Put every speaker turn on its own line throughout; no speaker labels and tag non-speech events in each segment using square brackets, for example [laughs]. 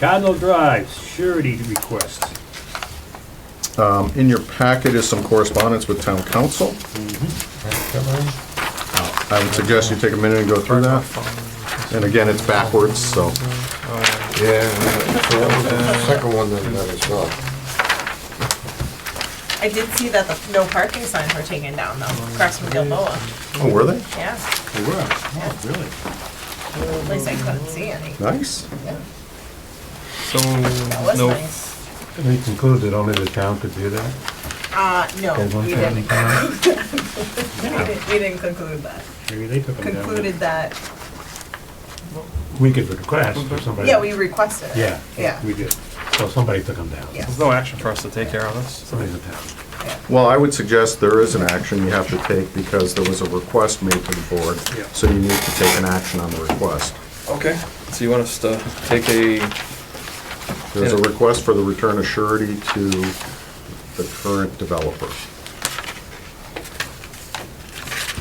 Cardinal Drive, surety request.
Um, In your packet is some correspondence with town council. I would suggest you take a minute and go through that. And again, it's backwards, so.
Yeah, the second one that that is not.
I did see that the no parking signs were taken down though, across from Gilboa,
Oh, were they?
yeah,
Oh, really?
at least I couldn't see any.
Nice.
So,
That was
no,
nice.
We concluded only the town could do that.
Uh, no,
There's one
we
family
didn't, we didn't, we didn't conclude that,
Maybe they took them down.
concluded that,
We could request for somebody.
yeah, we requested it.
Yeah.
Yeah,
We did.
So somebody took them down.
yeah,
there's no action for us to take care of this.
Somebody's in town.
yeah.
Well, I would suggest there is an action you have to take because there was a request made to the board.
Yeah.
So you need to take an action on the request.
Okay. So you want us to take a,
There's a request for the return of surety to the current developer.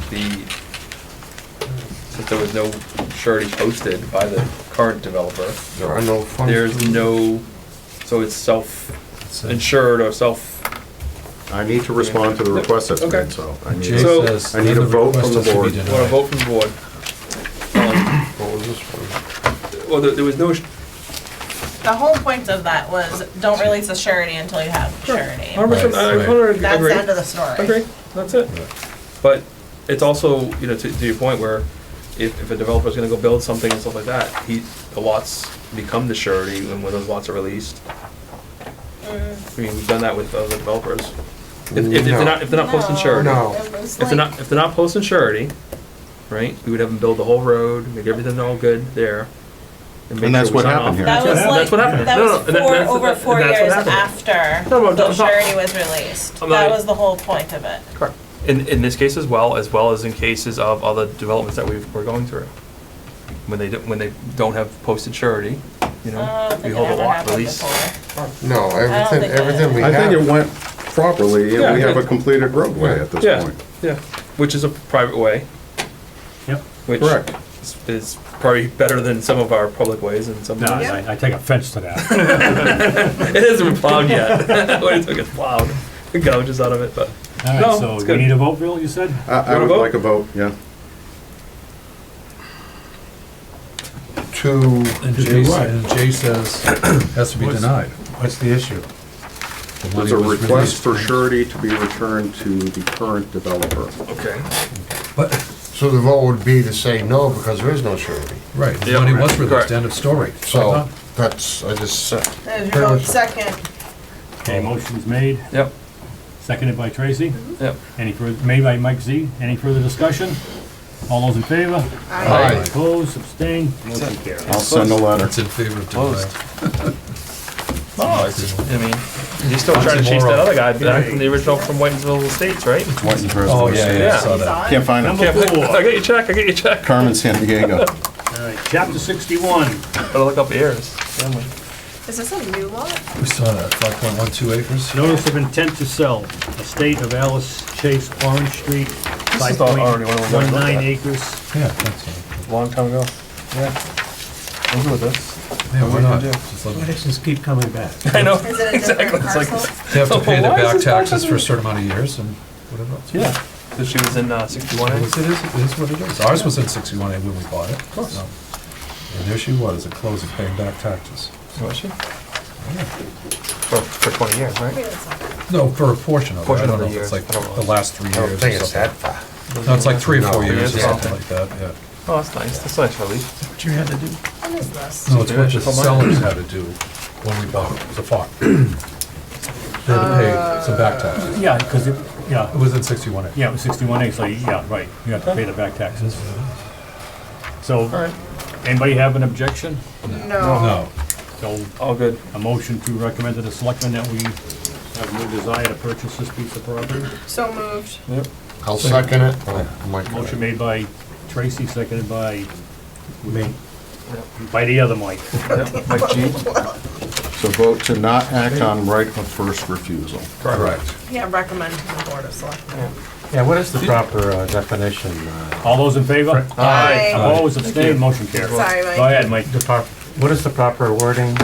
the, since there was no surety posted by the current developer,
There are no funds.
there's no, so it's self-insured or self,
I need to respond to the request that's
Okay.
made, so. I need
Jay
to-
So-
says
I need a
none of the
vote from the
requests should be
board.
denied.
want to vote from the board. Um,
What was this one?
Well, there there was no,
The whole point of that was, don't release a surety until you have surety.
hundred percent, I hundred,
That's the end of the story.
Agree, that's it. But it's also, you know, to, to your point where if, if a developer's gonna go build something and stuff like that, he, the lots become the surety and when those lots are released. I mean, we've done that with other developers. If, if- if they're not, if they're not posting
No,
surety,
No.
it was
if they're
like-
not, if they're not posting surety, right, we would have them build the whole road, make everything all good there. make
And that's
sure we
what
sign
happened
off.
here.
That was
That's
like,
what happened.
that
No, no,
was
and that-
four,
that's-
over
and
four
that's what
years
happened.
after
No, no,
the
I'm not-
surety was released.
I'm not-
That was the whole point of it.
Correct. In, in this case as well, as well as in cases of other developments that we've, we're going through. When they, don't- when they don't have posted surety, you
Uh, I don't
know, we
think it
hold a
ever
lot
happened
release.
before.
No, everything,
think that-
everything we
I
have.
think it went properly,
Yeah,
and we have a
good.
completed roadway at this
Yeah,
point.
yeah, which is a private way,
Yep.
which
Correct.
is- is probably better than some of our public ways and some.
No,
[laughs] of
I, I take offense to
[laughs]
that.
It hasn't been plowed yet, [laughs] when it took it plowed, the gouge is out of it, but.
All
No,
right, so
it's
we
good.
need a vote, Bill, you said?
I, I
You wanna
would
vote?
like a vote, yeah.
To,
And
To do
Jay,
what?
and Jay says, has to be
What's-
denied.
What's the issue?
The money
There's a
was
request
released.
for surety to be returned to the current developer.
Okay.
so the vote would be to say no because there is no surety.
Right, the
Yeah,
money was
correct.
released, end of story.
Uh-huh.
So that's, I just said.
There's your vote, second.
Okay, motion's made,
Yep,
seconded by Tracy.
Mm-hmm.
yep.
Any further, made by Mike Z. Any further discussion? All those in favor?
Aye.
Opposed, abstained, motion carried.
I'll send a letter.
It's in favor of
Closed.
denial.
Oh, it's, I mean, he's still trying to chase that other guy back from the original, from Whitensville Estates, right?
Oh, yeah, yeah, I saw
He's
that.
on.
Can't find
Number
it.
Can't-
four.
I got your check, I got your check.
Carmen San Diego.
All right, chapter sixty-one.
Gotta look up heirs.
Is this a new lot?
We saw that, five point one two acres.
Notice of intent to sell, estate of Alice Chase Orange Street, five
is the
point
already one we looked
one nine
at.
acres.
Yeah, that's it.
Long time ago. Yeah. I'm good with this.
Yeah, why not?
do?
Just let
Why
them-
does this keep coming back?
I know.
Is it a different parcel?
They have to pay
[laughs]
their
Why is
back
this back
taxes
to
for a
the-
certain amount of years and whatever else.
Yeah. So she was in uh, 61.
It
I
is,
think.
it is it is what it is. Ours was in sixty-one when we bought it. Of course. And there she was, at close of paying back taxes.
Was she? For, for 20 years, right?
Maybe it's not.
No, for a portion of it. I
Portion of
don't know
the
if it's
year.
like
I don't know.
the last three
I don't
years
think
or
it's that
something.
far.
No, it's like three or four
No,
years or
yeah.
something like that, yeah.
Oh, that's nice. That's nice relief.
What you had to do?
What is this?
No, it's what the
Yeah.
sellers had to do when we bought it, the farm. They had to pay some back taxes.
Yeah, because it,
It
yeah,
was in sixty-one acres.
yeah, it was sixty-one acres, so yeah, right, you have to pay the back taxes. So, anybody have an objection?
No.
No,
So,
All good.
a motion to recommend to the selectmen that we have no desire to purchase this piece of property.
So moved.
I'll second it. Oh, my God.
Motion made by Tracy, seconded by. Me. By the other Mike.
Yep. Mike G.
So vote to not act on right of first refusal.
correct.
Yeah, recommend to the Board of Selectmen.
Yeah, what is the proper uh, definition? uh,
All those in favor?
Aye.
Opposed, abstained, motion carried.
Sorry,
Go
Mike.
ahead, Mike.
the prop- What is the proper wording